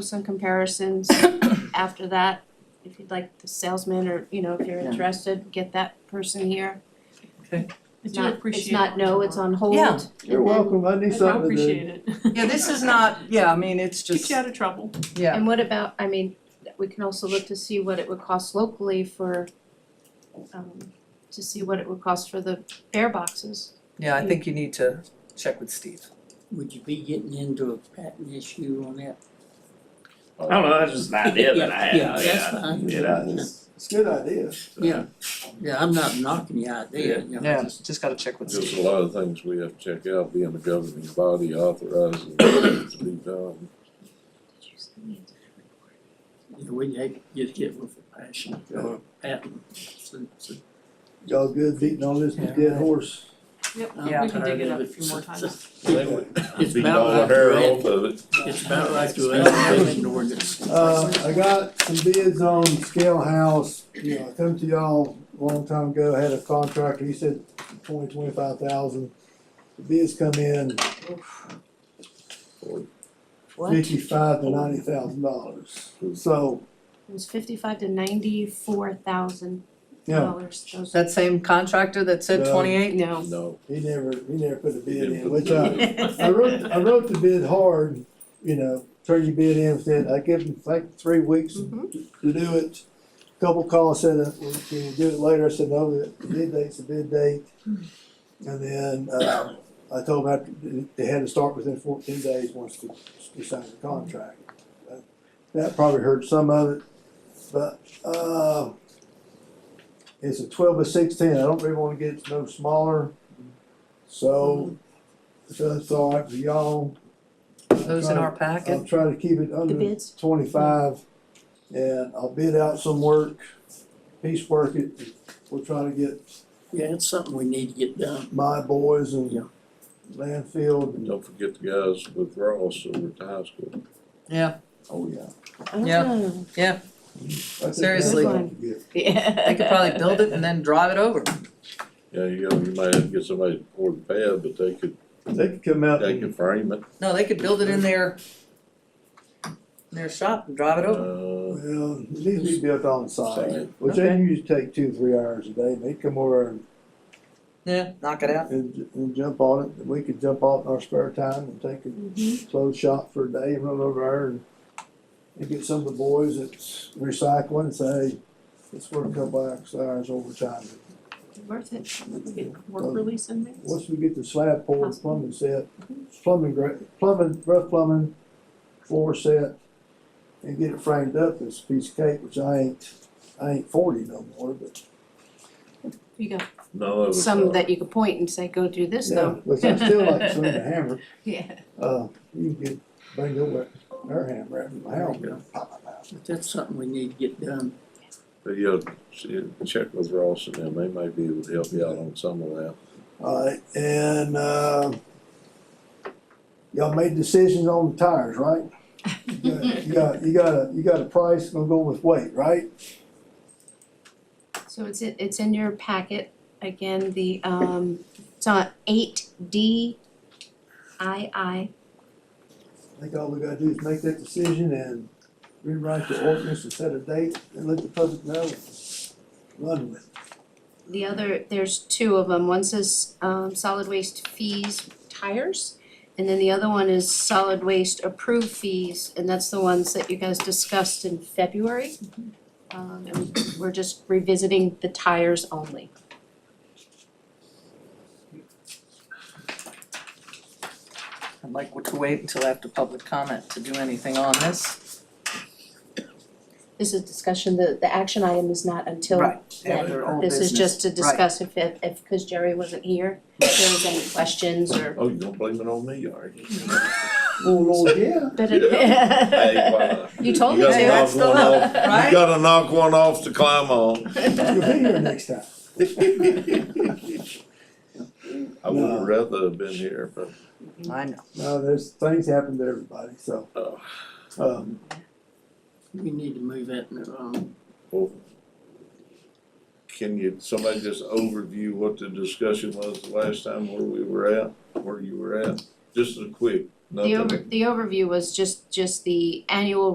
some comparisons after that. If you'd like the salesman or, you know, if you're Yeah. interested, get that person here. I It's do not- appreciate It's not no, it's on hold. Yeah. and You're then- welcome, I I need do something to do. appreciate it. Yeah, this is not, yeah, I mean, it's Keeps just, you out of trouble. yeah, And what about, I mean, we can also look to see what it would cost locally for, um, to see what it would cost for the bear boxes. yeah, I think you need to check with Steve. Would you be getting into a patent issue on that? I don't know, that's just an idea that I had, Yeah, yeah, that's yeah, fine. you Yeah, know, it's, it's a good idea. so. Yeah, yeah, I'm not knocking your idea, you know, just, Just gotta check with There's Steve. a lot of things we have to check out, being the governing body authorizing things to be done. you know, we had, get hit with a passion or a patent. So- so Y'all good beating on this Yeah. dead horse? I'm Yeah. We can dig tired it of up a few more times. They would It's Beat about all the like hair your, off ad- of it. it's about like your advertising ordinance. Uh, I got some bids on scale house, you know, I come to y'all a long time ago, I had a contractor, he said twenty, twenty-five thousand. The Bids come in fifty-five to ninety thousand dollars, so, It was fifty-five to ninety-four thousand yeah, dollars, those. That same contractor that said No. twenty-eight? No, No. he never, he never put a he bid didn't in, put which the- I, I wrote, I wrote the bid hard, you know, turned your bid in, said, I give them like three weeks Mhm. to to do it. Couple calls said, uh, well, can you do it later, I said, no, the bid date's the bid date. And then, uh, I told them I had to- they had to start within fourteen days once we, we signed the contract. Uh, That probably hurt some of it, but, uh, it's a twelve by sixteen, I don't really wanna get it no smaller. So, if that's all right for y'all. Those in our packet? I'll try to keep it the under bids, twenty-five, and I'll bid out some work, piecework it. We'll try to get Yeah, it's something we need to get done. my boys Yeah. and landfill, and, Don't forget the guys with Ross over at the high school. oh, yeah. Yeah. Oh, I think that's Seriously. what I can get. yeah. They could probably build it and then drive it over. Yeah, you know, you might have to get somebody to pour the pad, but they could, They could come out they and, could frame it, No, they could build it in their, in their shop and drive it over. uh, well, it needs to be built on site, Site. which they usually take two, three hours a day. They come over and, Yeah, knock it out. and, and jump on it, and we could jump off in our spare time and take a Mhm. clothes shop for a day, and run over there and, and get some of the boys that's recycling and say, let's work a couple extra hours overtime. Worth it. We get Work release in there. Once we get the slab poured, plumbing set, plumbing, gra- plumbing, rough plumbing, floor set, and get it framed up, it's a piece of cake, which I ain't, I ain't forty no more, but, You got none of us some are. that you could point and say, go do this yeah, though. which I still like swinging a hammer, Yeah. uh, you can get, bring over their hammer out of my house, you know, pop, pop, pop. But that's something we need to get done. But you check with Ross and them, they might be able to help you out on some of that. Alright, and, uh, y'all made decisions on the tires, right? You got- You got, you got a, you got a price, gonna go with weight, right? So it's, in- it's in your packet, again, the, um, it's on eight D I I. I think all we gotta do is make that decision and rewrite the ordinance and set a date and let the public know. Run with it. The other, there's two of them, one says, um, solid waste fees tires. And then the other one is solid waste approved fees, and that's the ones that you guys discussed in February. Um, and we're just revisiting the tires only. I'd like to wait until after public comment to do anything on this. This is discussion, the, the action item is not until Right, then. after old This is business. just to Right. discuss if, if, if, cause Jerry wasn't here, if there was any questions or. Oh, you gonna blame it on me, are you? Oh, Lord, yeah. But Hey, it, why? You told me gotta to. knock That's the one law, off- right? You gotta knock one off to climb on. You'll be here next time. I would have rather have been here, but, I know. No, there's, things happen to everybody, so, uh, um, We need to move that in the wrong. well, can you, somebody just overview what the discussion was the last time where we were at, where you were at? Just a quick The nothing. over, the overview was just, just the annual